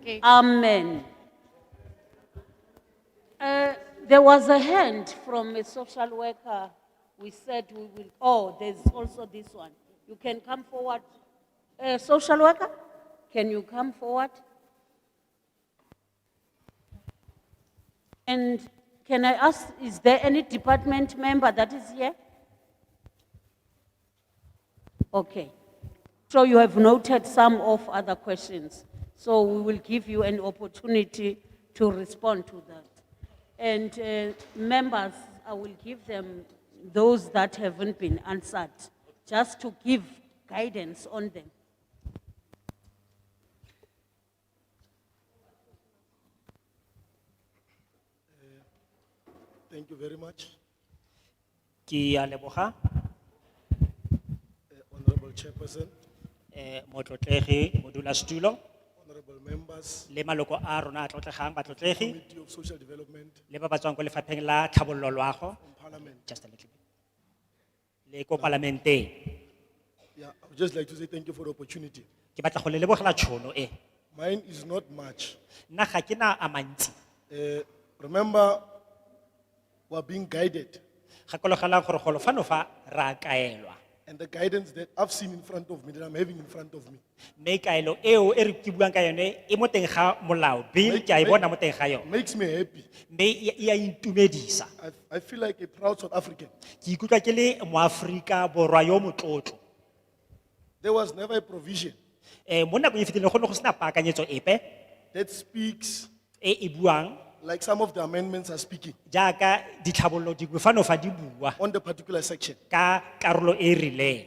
Okay. Amen. Uh, there was a hand from a social worker. We said we will, oh, there's also this one. You can come forward. Uh, social worker, can you come forward? And can I ask, is there any department member that is here? Okay. So you have noted some of other questions. So we will give you an opportunity to respond to that. And uh, members, I will give them those that haven't been answered, just to give guidance on them. Thank you very much, Ki aleboha, eh, Honorable Chairperson, eh, motlotlegi, modula stulo, Honorable Members, le maloko a rona a tlotlegang, batlotlegi, Committee of Social Development le ba ba tswang ko lefapheng la tlhabollo loago, and Parliament. just a little bit. Le ko parlamente, Yeah, I would just like to say thank you for the opportunity. ke batla go le lebogela tšhono e. Mine is not much. Nna ga ke na a mantsi, Eh, remember, we're being guided gakologelang gore golofano fa ra kaelwa. and the guidance that I've seen in front of me, that I'm having in front of me. Me kaelo eo e re ke buang ka yone e mo teng ga molao, bill ke a e bona mo teng ga yone. Makes me happy. Me e a intumedisa. I, I feel like a proud South African. Ke ikutlwa ke le moAfrika borwa yo motlotlo. There was never a provision Eh mo nakong e fetileng go ne go sena paakanyetso epe. that speaks e e buang like some of the amendments are speaking jaaka ditlhabololo dingwe fano fa di bua on the particular section. ka karolo e e rileng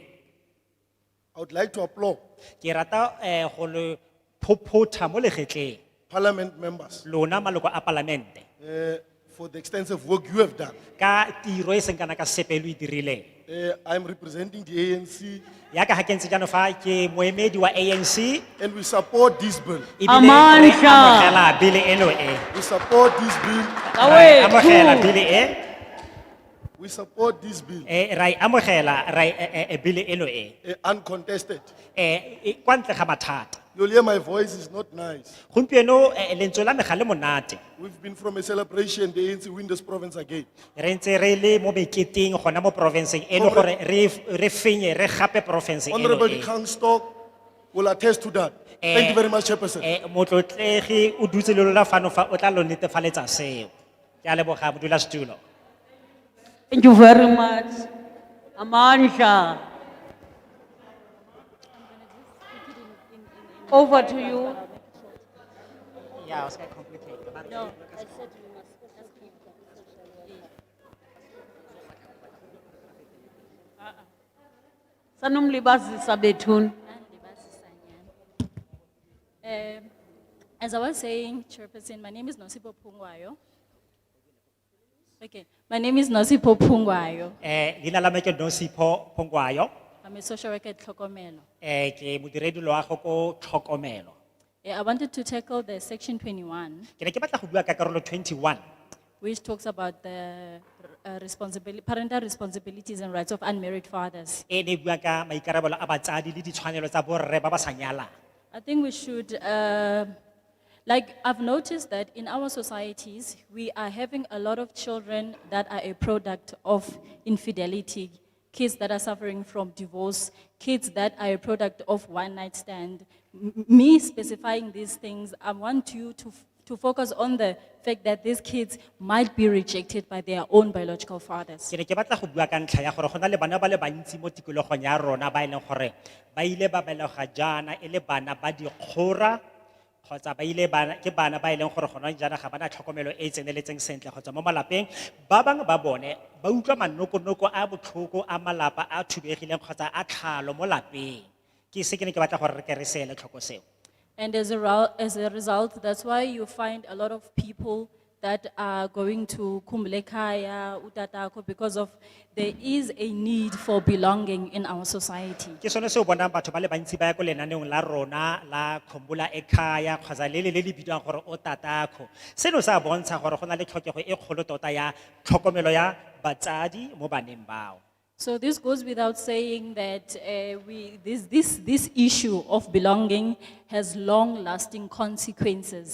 I would like to applaud ke rata um go le phophotha mo legetleng Parliament members lona maloko a palamente eh, for the extensive work you have done. ka tiro e seng kana ka sepe lo e dirileng Eh, I'm representing the ANC yaka ga ke ntse jaanong fa ke moemedi wa anc and we support this bill. ebile re Amandla. e amogela bile eno e We support this bill. Ra e amogela bile e We support this bill eh, ra e amogela ra e- eh, eh, eh, bile eno e eh, uncontested. Eh, e- kwa ntle ga mathata You'll hear my voice is not nice. gompieno eh, lentswe la me ga le monate We've been from a celebration, the ANC win this province again. re ntse re le mo meketeng gona mo porofenseng eno gore re Honorable- re fenye re gape porofense eno Honorable e. Kangstock will attest to that. Thank you very much, Chairperson. Eh, motlotlegi o dutse le lona fano fa o tla lo netefaletsa seo ke a leboga modulasetulo Thank you very much. Amandla. Over to you. Sanumlibazisa bethuna. Um, As I was saying, Chairperson, my name is Nosipo Pungwayo. Okay, my name is Nosipo Pungwayo. eh leina la me ke nosipho phongwayo I'm a social worker at Tlokomelo. eh ke modiredi loago ko tlhokomelo Eh, I wanted to tackle the section twenty-one, ke ne ke batla go bua ka karolo 21 which talks about the responsibility, parental responsibilities and rights of unmarried fathers. e ne e bua ka maikarabelo a batsadi le ditshwanelo tsa borre ba ba sa nyalang I think we should, uh, like, I've noticed that in our societies, we are having a lot of children that are a product of infidelity, kids that are suffering from divorce, kids that are a product of one night stand. M- Me specifying these things, I want you to, f- to focus on the fact that these kids might be rejected by their own biological fathers. ke ne ke batla go bua ka ntlha ya gore go na le bana ba le bantsi mo tikologong ya rona ba e leng gore ba ile ba belega jaana e le bana ba dikgora kgotsa ba ile bana ke bana ba e leng gore gona jaana ga bana tlhokomelo e e tseneletseng sentle kgotsa mo malapeng ba bangwe ba bone ba utlwa manokonoko a botlhoko a malapa a thubegileng kgotsa a tlhalo mo lapeng ke se ke ne ke batla gore re ke re seele tlhoko seo And as a, rel- as a result, that's why you find a lot of people that are going to Kumblekaya, Utatako, because of there is a need for belonging in our society. ke sone se o bonang batho ba le bantsi ba ya ko lenaneong la rona la khombola ekhaya kgotsa le le le le bidiwang gore o tatakho seno se a bontsha gore go na le tlhokego e kgolo tota ya tlhokomelo ya batsadi mo baneng bao So this goes without saying that uh, we, this, this, this issue of belonging has long-lasting consequences